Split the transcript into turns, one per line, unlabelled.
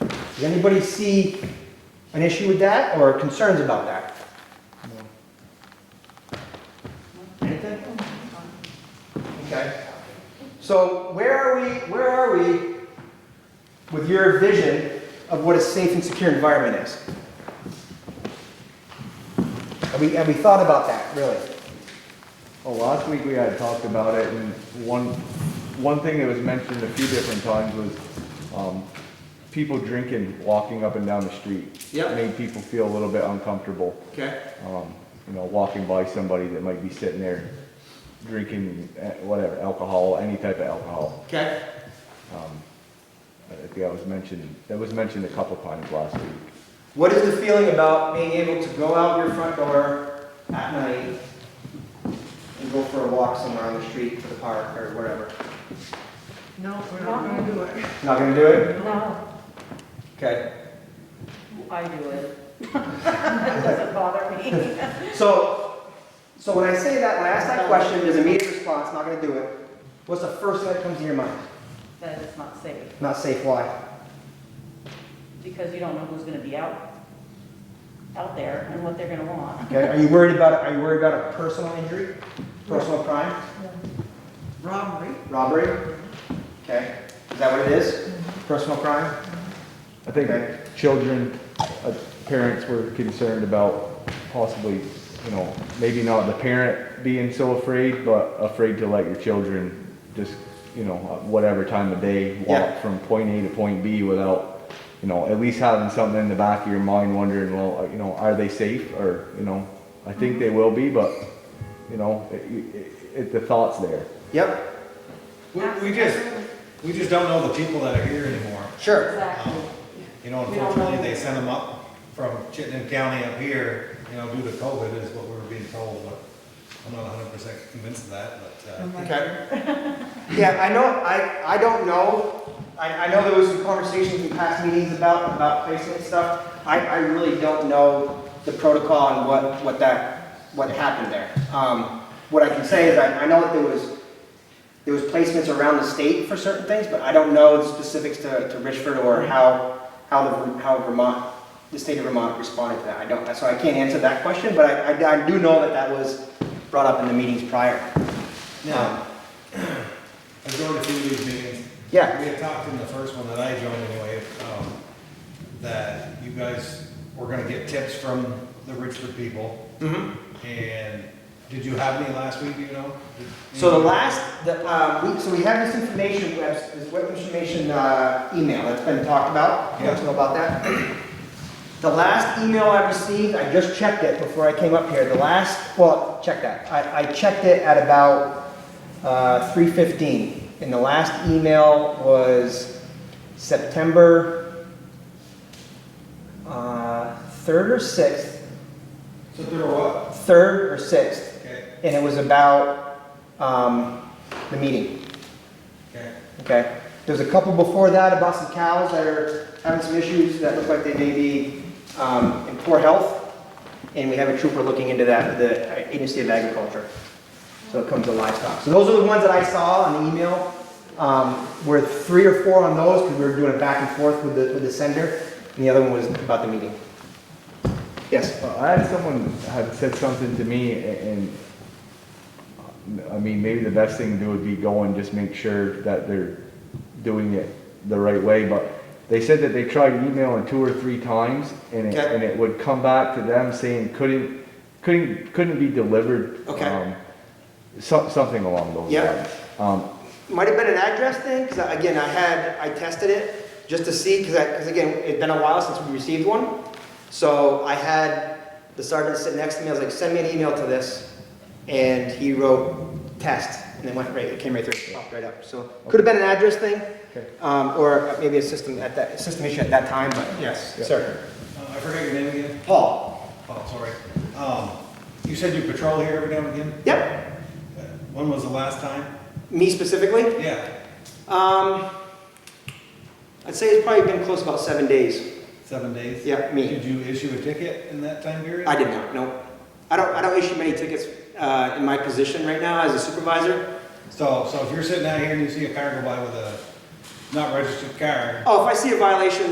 Does anybody see an issue with that or concerns about that? Anything? Okay. So where are we, where are we with your vision of what a safe and secure environment is? Have we, have we thought about that, really?
Well, Oh, last week we had talked about it, and one, one thing that was mentioned a few different times was, um, people drinking, walking up and down the street.
Yep.
Made people feel a little bit uncomfortable,
Okay.
um, you know, walking by somebody that might be sitting there drinking, eh, whatever, alcohol, any type of alcohol. Um,
Okay.
I think that was mentioned, that was mentioned a couple times last week.
What is the feeling about being able to go out your front door at night and go for a walk somewhere on the street to the park or whatever?
No, we're not gonna do it.
Not gonna do it?
No,
Okay.
I do it. That doesn't bother me.
So, so when I say that last night question, there's immediate response, not gonna do it. What's the first thing that comes to your mind?
That it's not safe,
Not safe, why?
because you don't know who's gonna be out, out there and what they're gonna want.
Okay, are you worried about, are you worried about a personal injury? Personal crime?
Robbery?
Robbery? Okay, is that what it is? Personal crime?
I think
Okay.
children, uh, parents were concerned about possibly, you know, maybe not the parent being so afraid, but afraid to let your children just, you know, uh, whatever time of day,
Yeah.
walk from point A to point B without, you know, at least having something in the back of your mind wondering, well, uh, you know, are they safe or, you know, I think they will be, but, you know, it, it, it, the thought's there.
Yep,
We, we just, we just don't know the people that are here anymore.
sure.
Exactly.
You know,
We don't
unfortunately,
know.
they sent them up from Chittenden County up here, you know, due to COVID is what we were being told, but I'm not hundred percent convinced of that, but, uh,
Okay. Yeah, I know, I, I don't know, I, I know there was some conversations in past meetings about, about placement stuff. I, I really don't know the protocol and what, what that, what happened there. Um, what I can say is I, I know that there was, there was placements around the state for certain things, but I don't know the specifics to, to Richford or how, how the, how Vermont, the state of Vermont responded to that. I don't, so I can't answer that question, but I, I I do know that that was brought up in the meetings prior. Um,
now, I joined a few of these meetings.
Yeah.
We had talked in the first one that I joined anyway, um, that you guys were gonna get tips from the Richford people,
Mm-hmm.
and did you have any last week, do you know?
So the last, the, um, we, so we have this information, we have this web information, uh, email that's been talked about. You guys know about that? The last email I received, I just checked it before I came up here. The last, well, check that. I, I checked it at about, uh, three fifteen. And the last email was September, uh, third or sixth,
So there were what?
third or sixth.
Okay,
And it was about, um, the meeting.
okay.
Okay, there's a couple before that about some cows that are having some issues that look like they may be um, in poor health. And we have a trooper looking into that, with the Agency of Agriculture. So it comes to livestock. So those are the ones that I saw on the email. Um, We're three or four on those because we were doing it back and forth with the, with the sender. And the other one was about the meeting. Yes,
Well, I had someone had said something to me a- and, uh, I mean, maybe the best thing to do would be go and just make sure that they're doing it the right way, but they said that they tried emailing two or three times and it,
Okay.
and it would come back to them saying couldn't, couldn't, couldn't be delivered.
Okay.
um, Some, something along those
Yeah.
lines. Um,
might have been an address thing because again, I had, I tested it just to see because I, because again, it'd been a while since we received one. So I had the sergeant sit next to me, I was like, send me an email to this. And he wrote test, and it went right, it came right through, popped right up. So could have been an address thing,
Okay.
um, or maybe a system at that, a system issue at that time, but yes,
Yeah.
sir.
Uh, I forget your name again.
Paul?
Oh, sorry. Um, you said you patrol here every now and again?
Yep,
Uh, When was the last time?
me specifically?
Yeah,
Um, I'd say it's probably been close about seven days.
seven days?
Yeah, me.
Did you issue a ticket in that time period?
I did not, no. I don't, I don't issue many tickets, uh, in my position right now as a supervisor.
So, so if you're sitting out here and you see a car go by with a not registered car,
Oh, if I see a violation,